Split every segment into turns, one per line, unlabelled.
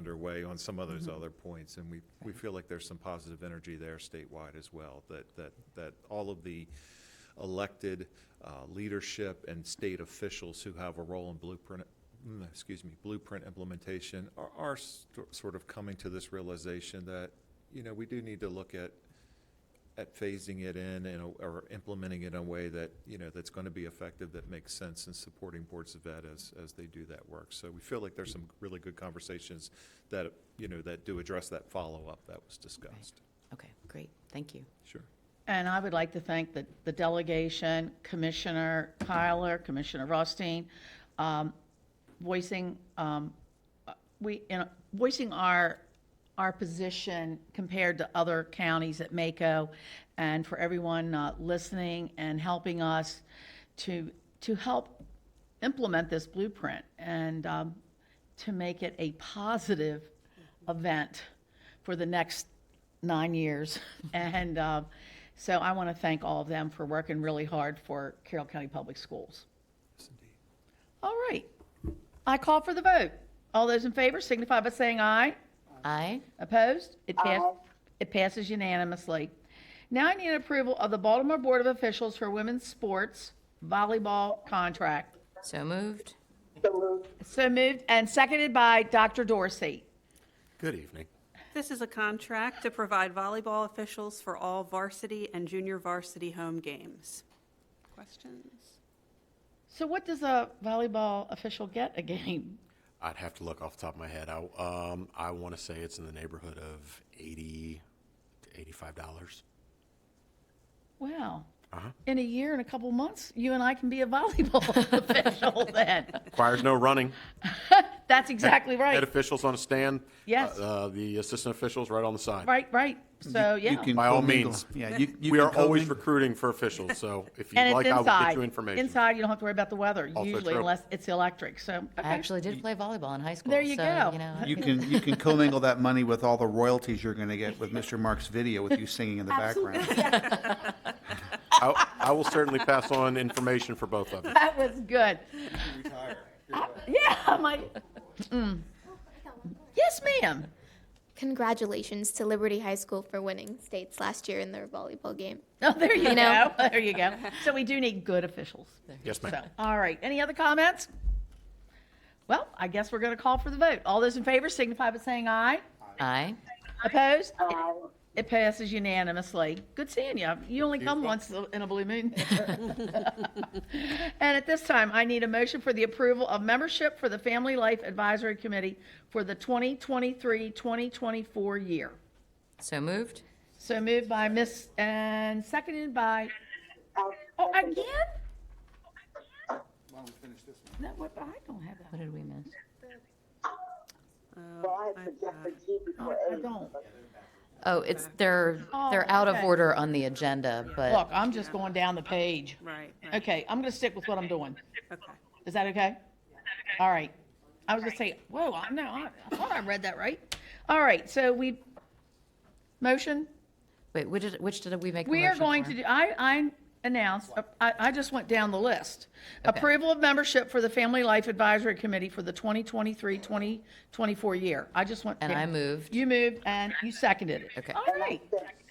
underway on some of those other points, and we, we feel like there's some positive energy there statewide as well, that, that, that all of the elected uh, leadership and state officials who have a role in blueprint, mm, excuse me, blueprint implementation are, are st- sort of coming to this realization that, you know, we do need to look at, at phasing it in and, or implementing it in a way that, you know, that's going to be effective, that makes sense in supporting boards of ed as, as they do that work. So we feel like there's some really good conversations that, you know, that do address that follow-up that was discussed.
Okay, great, thank you.
Sure.
And I would like to thank the, the delegation, Commissioner Kyler, Commissioner Rothstein, um, voicing, um, uh, we, you know, voicing our, our position compared to other counties at Mako, and for everyone uh, listening and helping us to, to help implement this blueprint and um, to make it a positive event for the next nine years. And um, so I want to thank all of them for working really hard for Carroll County Public Schools. All right. I call for the vote. All those in favor signify by saying aye.
Aye,
Opposed? It pass, it passes unanimously. Now I need approval of the Baltimore Board of Officials for Women's Sports Volleyball Contract.
so moved.
So moved and seconded by Dr. Dorsey.
Good evening.
This is a contract to provide volleyball officials for all varsity and junior varsity home games. Questions?
So what does a volleyball official get a game?
I'd have to look off the top of my head. I um I want to say it's in the neighborhood of eighty to eighty-five dollars.
Wow.
Uh-huh.
In a year and a couple months, you and I can be a volleyball official then.
Requires no running.
That's exactly
Head
right.
officials on a stand.
Yes.
Uh, uh, the assistant officials right on the side.
Right, right. So,
You
yeah.
can
By all
commingle.
means.
Yeah, you, you
we
can
are always
commingle.
recruiting for officials, so if you'd
And
like,
it's
I will get
inside.
you information.
Inside, you don't have to worry about the weather
Also
usually
true.
unless it's electric. So,
I
okay.
actually did play volleyball in high school, so,
There you
you
go.
know.
You can you can commingle that money with all the royalties you're going to get with Mr. Mark's video with you singing in the background.
I, I will certainly pass on information for both of you.
That was good. Yeah, I'm like, mm. yes, ma'am.
Congratulations to Liberty High School for winning states last year in their volleyball game.
Oh, there you
You know.
go. There you go. So we do need good officials.
Yes, ma'am.
So, all right. Any other comments? Well, I guess we're going to call for the vote. All those in favor signify by saying aye.
Aye,
Opposed? It- It passes unanimously. Good seeing you. You only come once in a blue moon. And at this time, I need a motion for the approval of membership for the Family Life Advisory Committee for the 2023-2024 year.
so moved.
So moved by Miss, and seconded by, oh, again? No, what, I don't have that.
What did we miss?
Well, I
uh,
suggested G before
I
H.
don't.
Oh, it's, they're, they're
Oh,
out of
okay.
order on the agenda,
Look,
but,
I'm just going down the page.
Right, right,
Okay, I'm going to stick with what I'm doing.
okay.
Is that okay? All right. I was gonna say, whoa, I know, I- I thought I read that right. All right, so we, motion?
wait, which did, which did we make the
We are
motion
going
for?
to do, I, I announced, uh, I, I just went down the list. Approval of membership for the Family Life Advisory Committee for the 2023, 2024 year. I just went.
And I
down.
moved.
You moved and you seconded it.
Okay.
All right.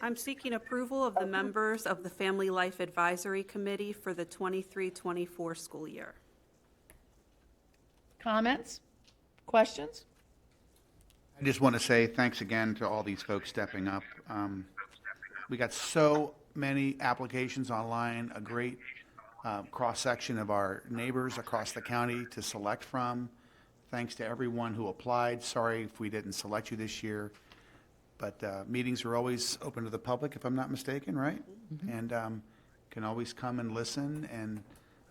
I'm seeking approval of the members of the Family Life Advisory Committee for the 23-24 school year.
Comments? Questions?
I just want to say thanks again to all these folks stepping up. Um, we got so many applications online, a great uh, cross section of our neighbors across the county to select from. Thanks to everyone who applied. Sorry if we didn't select you this year. But uh, meetings are always open to the public, if I'm not mistaken, right? And um, can always come and listen. And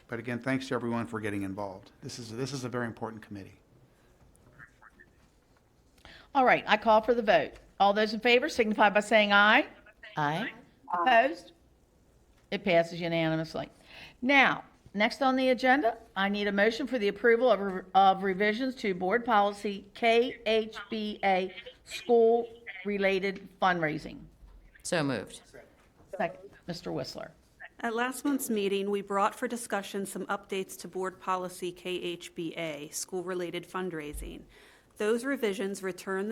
but again, thanks to everyone for getting involved. This is this is a very important committee.
All right, I call for the vote. All those in favor signify by saying aye.
Aye,
Opposed? It passes unanimously. Now, next on the agenda, I need a motion for the approval of- of revisions to Board Policy KHBA, School-Related Fundraising.
so moved.
Second, Mr. Whistler.
At last month's meeting, we brought for discussion some updates to Board Policy KHBA, school-related fundraising. Those revisions return the